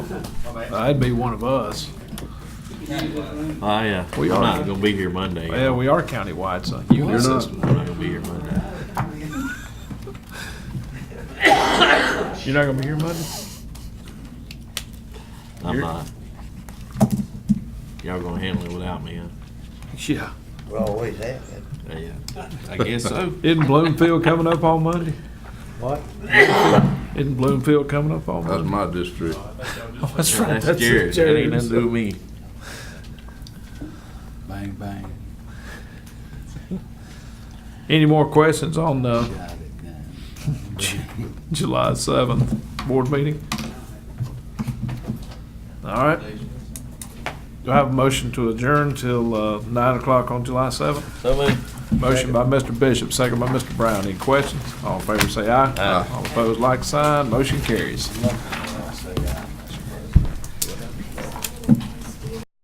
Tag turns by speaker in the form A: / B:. A: I'd be one of us.
B: I, uh, I'm
A: We are.
B: not gonna be here Monday.
A: Yeah, we are countywide, so you
C: You're not.
A: assist.
B: I'm not gonna be here Monday.
A: You're not gonna be here Monday?
B: I'm
A: You're-
B: not. Y'all gonna handle it without me, huh?
A: Yeah.
D: We always have it.
B: Yeah. I guess so.
A: Isn't Bloomfield coming up on Monday?
D: What?
A: Isn't Bloomfield coming up on
C: That's
A: Monday?
C: my district.
A: Oh, That's right.
B: That's Jared. That ain't nothing to do with me.
E: Bang, bang.
A: Any more questions on the
E: Got it now.
A: July seventh board meeting? All right. Do I have a motion to adjourn till, uh, nine o'clock on July seventh?
B: So moved.
A: Motion by Mr. Bishop, second by Mr. Brown. Any questions? All in favor say aye.
C: Aye.
A: All opposed, like sign. Motion carries.